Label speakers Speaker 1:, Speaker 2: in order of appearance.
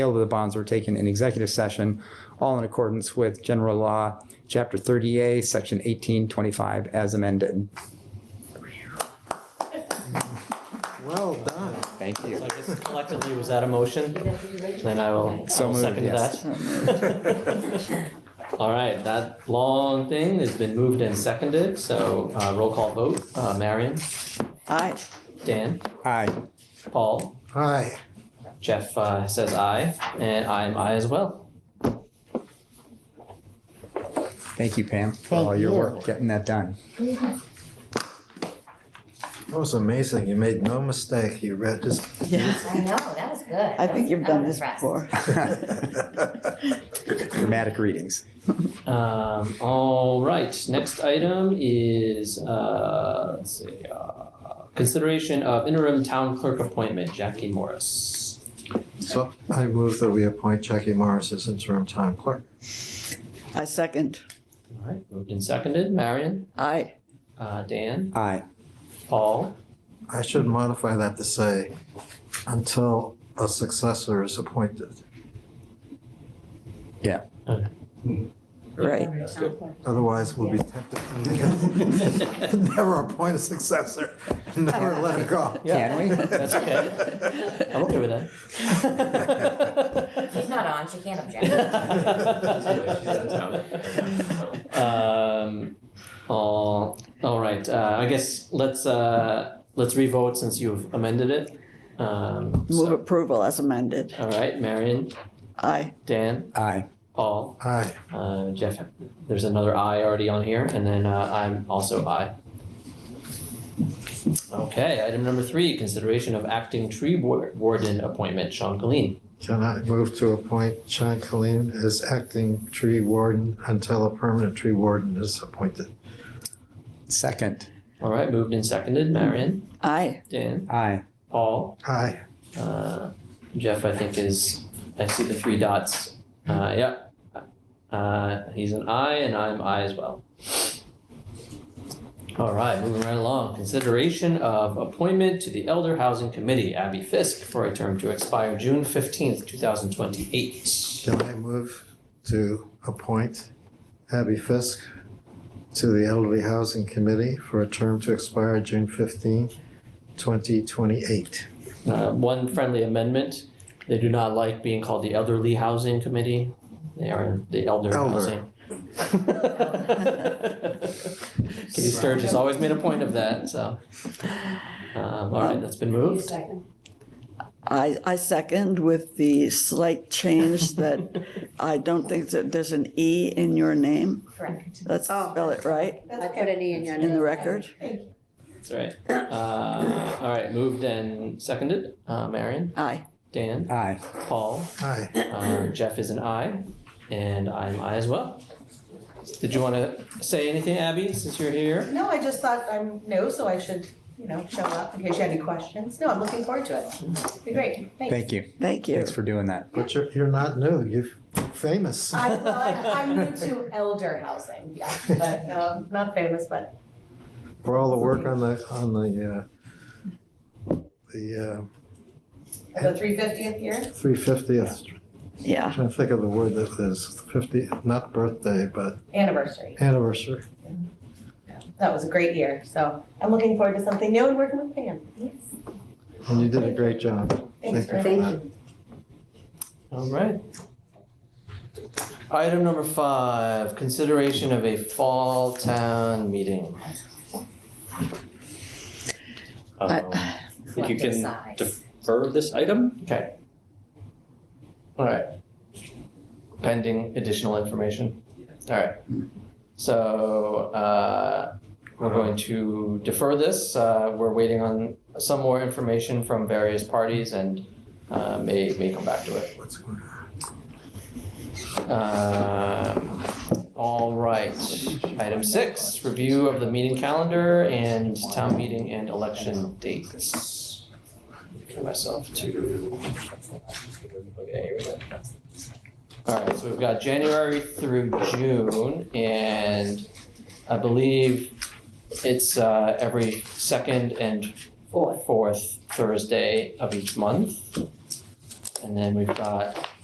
Speaker 1: sale of the bonds were taken in executive session, all in accordance with general law, chapter 30A, section 1825, as amended.
Speaker 2: Well done.
Speaker 1: Thank you.
Speaker 3: So I guess collectively, was that a motion? Then I will, I
Speaker 1: So
Speaker 3: will
Speaker 1: moved,
Speaker 3: second
Speaker 1: yes.
Speaker 3: that. All right, that long thing has been moved and seconded, so uh, roll call vote. Uh, Marion,
Speaker 4: Aye.
Speaker 3: Dan,
Speaker 1: Aye.
Speaker 3: Paul,
Speaker 2: Hi.
Speaker 3: Jeff uh, says aye, and I am aye as well.
Speaker 1: Thank you, Pam, for all your work getting that done.
Speaker 2: That was amazing. You made no mistake. You read this.
Speaker 4: Yeah.
Speaker 5: I know, that was good.
Speaker 4: I think you've done this
Speaker 5: That was
Speaker 4: before.
Speaker 1: Dramatic readings.
Speaker 3: Um, All right, next item is, uh, let's see, uh, consideration of interim town clerk appointment, Jackie Morris.
Speaker 2: So I move that we appoint Jackie Morris as interim town clerk.
Speaker 4: I second.
Speaker 3: All right, moved and seconded. Marion,
Speaker 4: Aye.
Speaker 3: uh, Dan,
Speaker 1: Aye.
Speaker 3: Paul,
Speaker 2: I should modify that to say until a successor is appointed.
Speaker 4: Right.
Speaker 3: That's good.
Speaker 2: Otherwise, we'll be tempted. Never appoint a successor. Never let it go.
Speaker 1: Can we?
Speaker 3: That's okay. I'm okay with
Speaker 5: impressive. She's
Speaker 3: that.
Speaker 5: not on, she can't object.
Speaker 3: Um, all, all right, uh, I guess let's, uh, let's revote since you've amended it. Um,
Speaker 4: Move
Speaker 3: so,
Speaker 4: approval as amended.
Speaker 3: all right, Marion,
Speaker 4: Aye.
Speaker 3: Dan,
Speaker 1: Aye.
Speaker 3: Paul,
Speaker 2: Hi.
Speaker 3: uh, Jeff, there's another I already on here, and then, uh, I'm also I. Okay, item number three, consideration of acting tree war- warden appointment, Sean Colleen.
Speaker 2: Can I move to appoint Sean Colleen as acting tree warden until a permanent tree warden is appointed?
Speaker 1: Second.
Speaker 3: All right, moved and seconded. Marion,
Speaker 4: Aye.
Speaker 3: Dan,
Speaker 1: Aye.
Speaker 3: Paul,
Speaker 2: Hi.
Speaker 3: uh, Jeff, I think is, I see the three dots. Uh, yeah. Uh, he's an I and I'm I as well. All right, moving right along. Consideration of appointment to the Elder Housing Committee, Abby Fisk, for a term to expire June fifteenth, two thousand twenty-eight.
Speaker 2: Can I move to appoint Abby Fisk to the Elderly Housing Committee for a term to expire June 15, 2028?
Speaker 3: Uh, one friendly amendment. They do not like being called the Elderly Housing Committee. They are the Elder
Speaker 2: Elder.
Speaker 3: Housing. Katie Sturgis always made a point of that, so. Um, all right, that's been moved.
Speaker 4: I, I second with the slight change that I don't think that there's an E in your name.
Speaker 5: Correct.
Speaker 4: Let's
Speaker 6: Oh.
Speaker 4: spell it right
Speaker 6: I put an E in your
Speaker 4: in the
Speaker 6: name.
Speaker 4: record.
Speaker 3: That's right. Uh, all right, moved and seconded. Uh, Marion,
Speaker 4: Aye.
Speaker 3: Dan,
Speaker 1: Aye.
Speaker 3: Paul,
Speaker 2: Aye.
Speaker 3: uh, Jeff is an I, and I'm I as well. Did you want to say anything, Abby, since you're here?
Speaker 6: No, I just thought I'm new, so I should, you know, show up in case you had any questions. No, I'm looking forward to it. Be great, thanks.
Speaker 1: Thank you.
Speaker 4: Thank you.
Speaker 1: Thanks for doing that.
Speaker 2: But you're, you're not new, you're famous.
Speaker 6: I, I'm new to elder housing, yeah, but, um, not famous, but
Speaker 2: For all the work on the, on the, uh, the
Speaker 6: the three fiftieth year.
Speaker 2: uh, 350th, I'm
Speaker 4: Yeah.
Speaker 2: trying to think of the word that is, 50, not birthday, but
Speaker 6: anniversary.
Speaker 2: anniversary.
Speaker 6: That was a great year, so I'm looking forward to something new and working with Pam.
Speaker 2: And you did a great job.
Speaker 6: Thanks for
Speaker 2: Thank
Speaker 6: having
Speaker 2: you.
Speaker 6: me.
Speaker 3: All right. Item number five, consideration of a fall town meeting.
Speaker 4: I-
Speaker 7: Um, I think you
Speaker 5: Collective
Speaker 7: can
Speaker 5: size.
Speaker 7: defer this item.
Speaker 3: Okay. All right. Pending additional information. All right. So uh, we're going to defer this. Uh, We're waiting on some more information from various parties and uh, may, may come back to it.
Speaker 2: What's going on?
Speaker 3: Um, All right, item six, review of the meeting calendar and town meeting and election dates. For myself to. Okay, here we go. All right, so we've got January through June, and I believe it's uh, every second and fourth Thursday of each month. And then we've got